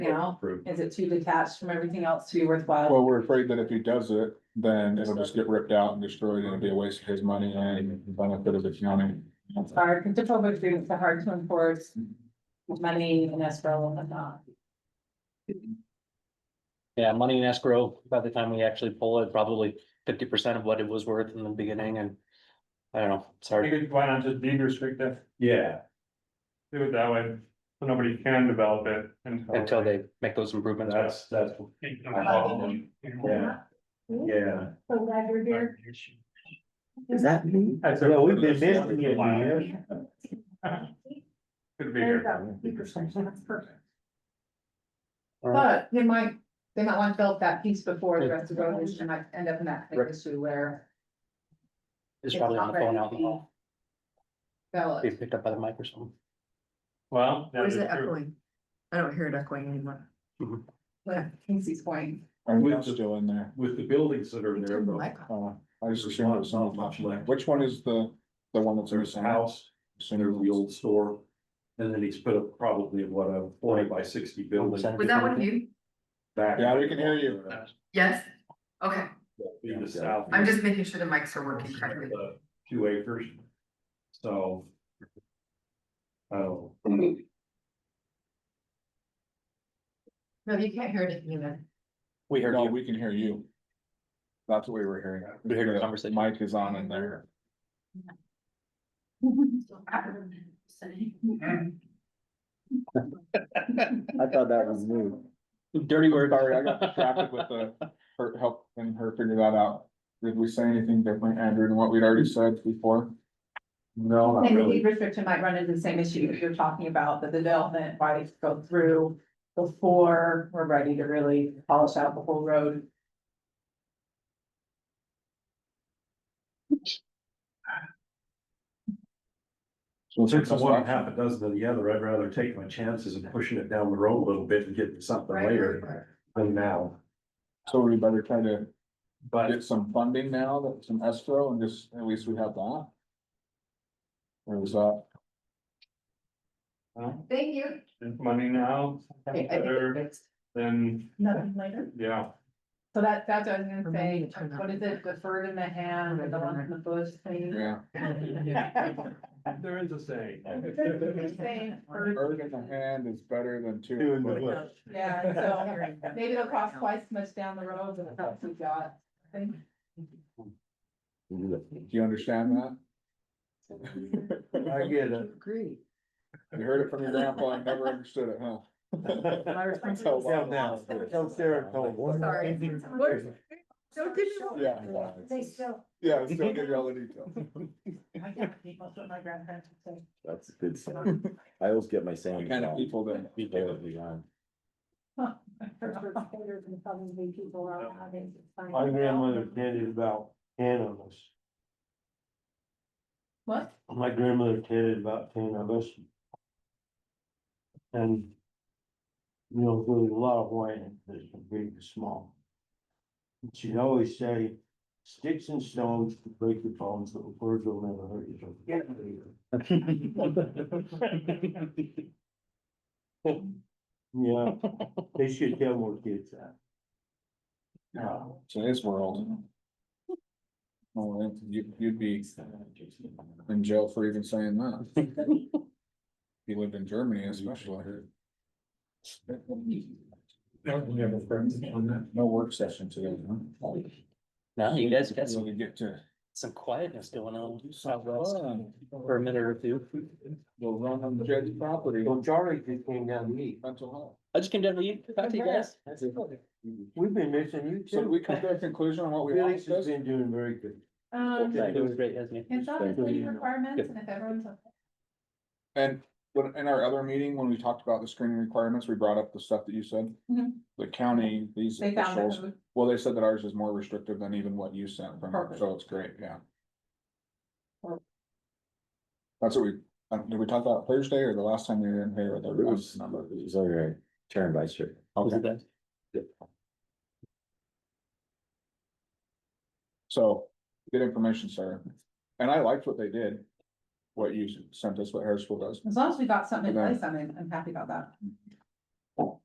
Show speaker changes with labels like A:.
A: you know,
B: Approved.
A: is it too detached from everything else to be worthwhile?
C: Well, we're afraid that if he does it, then it'll just get ripped out and destroyed and it'll be a waste of his money and the benefit of the county.
A: It's hard, because default agreements are hard to enforce. Money and escrow and whatnot.
D: Yeah, money in escrow, by the time we actually pull it, probably fifty percent of what it was worth in the beginning and. I don't know, it's
E: I
D: hard.
E: think why not just deed restrict it,
B: Yeah,
E: do it that way, so nobody can develop it until.
D: until they make those improvements.
B: that's, that's, yeah, yeah.
F: So glad you're here.
G: Is that me?
E: That's a-
B: Yeah, we've been missing you, man.
E: Good to be
F: There you
E: here.
F: go. Deed restriction, that's perfect.
A: But they might, they might want to build that piece before the rest of the road, and might end up in that big
D: Right.
A: issue where.
D: It's probably on the phone out in the hall,
A: Well,
D: be picked up by the mic or something.
E: Well. that
G: Or is
E: is
G: it
E: true. Mm-hmm.
G: echoing? I don't hear it echoing anymore.
A: like Casey's point.
C: And that's still in there.
B: With the buildings that are
G: Turn
B: there,
G: the
B: though,
G: mic off.
C: Uh, I just assumed it was not left. Which one is the, the one that's
B: there's a
C: missing?
B: house, and there's the old store. And then he's put up probably what a forty by sixty building
D: Center
G: Was that one you?
B: back.
C: Yeah, we can hear you.
G: Yes? Okay,
B: Be the south.
G: I'm just making sure the mics are working correctly.
B: Uh, Two acres. So. Oh,
G: No, you can't hear anything either.
D: We heard
C: No,
D: you,
C: we can hear you. That's what we were hearing.
D: we heard your conversation.
C: Mic is on in there.
H: I thought that was new.
D: Dirty word.
C: Sorry, I got distracted with the, her helping her figure that out. Did we say anything different, Andrew, than what we'd already said before?
B: no, not
A: And the
B: really.
A: deed restriction might run into the same issue that you're talking about, that the development might go through before we're ready to really polish out the whole road.
C: So
B: Since it's one half a dozen of the other, I'd rather take my chances of pushing it down the road a little bit and getting something
G: Right,
B: later than now.
C: So we better try to
B: But
C: get some funding now, that some escrow, and just, at least we have that. Or was that?
B: uh,
E: Well,
G: Thank you.
E: there's Money now,
A: I- I think it's
E: better
A: fixed.
E: than,
A: Nothing later.
E: yeah,
A: So that, that's what I was gonna
G: Remind me
A: say,
G: to turn that
A: what is it, the bird in the hand or the one in the bush thing?
C: Yeah.
E: there is a saying.
C: Bird in the hand is better than two. in the bush.
A: Yeah, so maybe it'll cost twice as much down the road than the help we got. I think.
C: Do you understand that?
B: I get it.
G: Agree.
C: You heard it from your grandpa, I never understood it, huh?
H: Down now. Tell Sarah, tell
G: Sorry.
H: her. What?
G: Don't give me one.
C: Yeah.
F: They still.
C: Yeah, still give you all the details.
A: That's what my grandparents would say.
H: That's a good sound. I always get my sound.
C: The kind of people that.
H: wrong.
F: Probably people are having.
E: My grandmother did it about ten of us.
A: What?
E: My grandmother did it about ten of us. And. You know, there was a lot of whining, because big and small. And She'd always say, sticks and stones to break your bones, but words will never hurt you. So get out of here. Yeah, they should tell more kids that. Uh, No.
C: Today's world. Oh, you, you'd be in jail for even saying that. If You lived in Germany especially. No work session today, huh?
D: Now you guys got
C: So
D: some,
C: we get to.
D: some quietness going on out west for a minute or two.
C: We'll run on the judge's property,
E: Well, Charlie just came down to meet.
C: mental health.
D: I just came down to you, talk to you guys.
E: We've been missing you
C: So did
E: too.
C: we come to a conclusion on what we
E: Felix
C: lost
E: has
C: this?
E: been doing very good.
A: Um,
D: It was great, hasn't it?
A: it's obviously requirements and if everyone's.
C: And when, in our other meeting, when we talked about the screening requirements, we brought up the stuff that you said.
A: Mhm.
C: The county, these
A: They found
C: officials,
A: it.
C: well, they said that ours is more restrictive than even what you sent from her,
A: Perfect.
C: so it's great, yeah.
A: Perfect.
C: That's what we, uh, did we talk about Thursday or the last time you were in here with
H: It
C: the
H: was,
C: last number?
H: it was all right. Turn by shirt.
D: Was it that?
C: So, good information, sir. And I liked what they did. What you sent us, what Harrisville does.
A: As long as we got something in
C: Okay.
A: place, I'm, I'm happy about that.